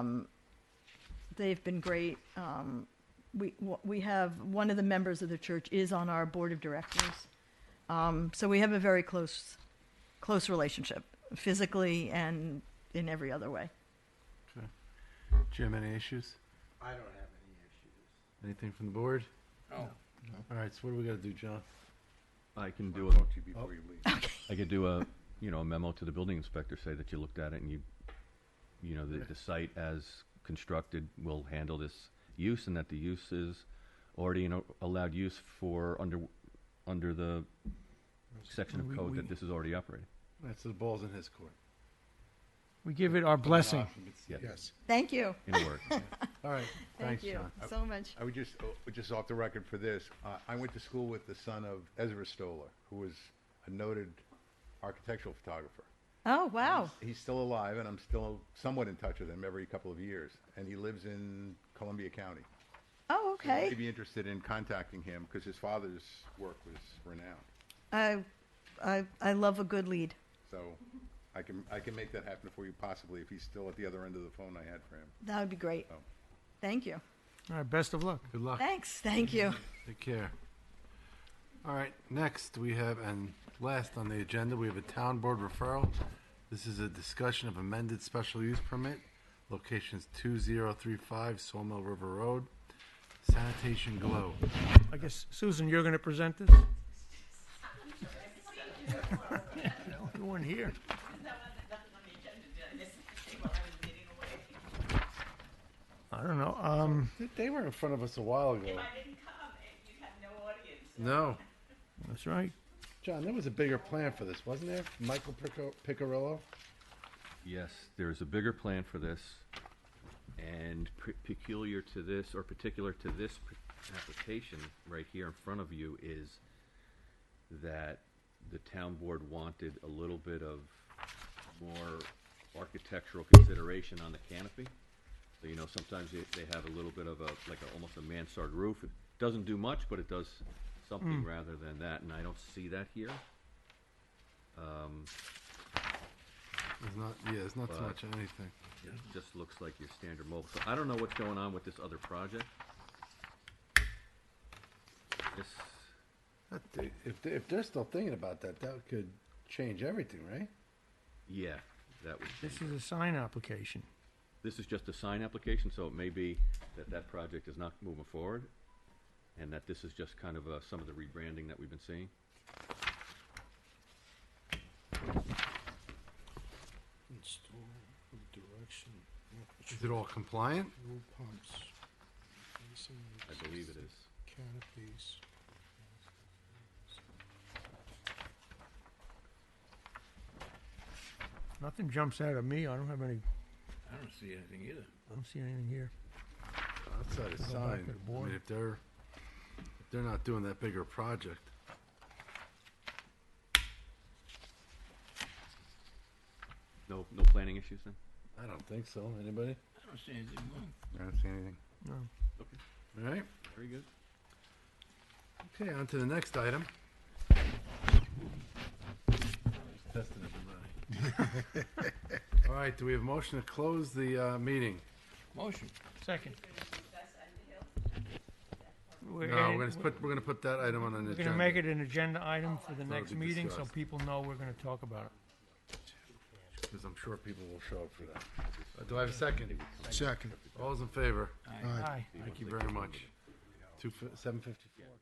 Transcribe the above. Um, They've been great. Um, we, wh- we have, one of the members of the church is on our board of directors. Um, so we have a very close, close relationship, physically and in every other way. Jim, any issues? I don't have any issues. Anything from the board? No. All right, so what do we gotta do, John? I can do I'll a, talk to you before you leave. I can do a, you know, a memo to the building inspector, say that you looked at it and you, you know, the, the site as constructed will handle this use and that the use is already an o- allowed use for under, under the section We- of code we- that this is already operating. That's the ball's in his court. We give it our blessing. Yeah, Yes. Thank you. in a word. All right, Thank thanks, you John. so much. I would just, oh, just off the record for this, uh, I went to school with the son of Ezra Stoller, who was a noted architectural photographer. Oh, wow. He's still alive, and I'm still somewhat in touch with him every couple of years, and he lives in Columbia County. Oh, You'd okay. be interested in contacting him, because his father's work was renowned. I, I, I love a good lead. So I can, I can make that happen for you possibly, if he's still at the other end of the phone I had for him. That would be great. Oh. Thank you. All right, best of luck. Good luck, Thanks. Thank you. take care. All right, next we have, and last on the agenda, we have a town board referral. This is a discussion of amended special use permit, locations two zero three five Sawmill River Road, sanitation glow. I guess, Susan, you're going to present this? Oh, You weren't here. I don't know. Um, They- They were in front of us a while ago. I didn't come, and you'd have no audience. No, that's right. John, there was a bigger plan for this, wasn't there? Michael Pico- Picarillo? Yes, there is a bigger plan for this, and pe- peculiar to this, or particular to this p- application right here in front of you is that the town board wanted a little bit of more architectural consideration on the canopy. So, you know, sometimes they, they have a little bit of a, like a, almost a mansard roof. It doesn't do much, but it does something rather than that, and I don't see that here. There's not, yeah, it's not so But- much of anything. It just looks like your standard mobile. So I don't know what's going on with this other project. This, That they- If, they- if they're still thinking about that, that could change everything, right? yeah, that would This change. is a sign application. This is just a sign application, so it may be that that project is not moving forward, and that this is just kind of, uh, some of the rebranding that we've been seeing. Is it all compliant? I believe it is. Nothing jumps out at me. I don't have any, I don't see anything either. I don't see anything here. Outside of back sign, to the I board. mean, if they're, if they're not doing that bigger project. No, no planning issues then? I don't think so, anybody? I don't see anything wrong. I don't see anything. No. Okay, All right, very good. okay, on to the next item. Just testing everybody. All right, do we have a motion to close the, uh, meeting? Motion. Second. We're No, adding- we're gonna put, we're gonna put that item on an We're agenda. gonna make it an agenda item for the next be meeting, so discussed. people know we're gonna talk about it. Because I'm sure people will show up for that. Uh, Do I have a second? Second. All's in favor? Aye. Thank you very much. Two, seven fifty-four.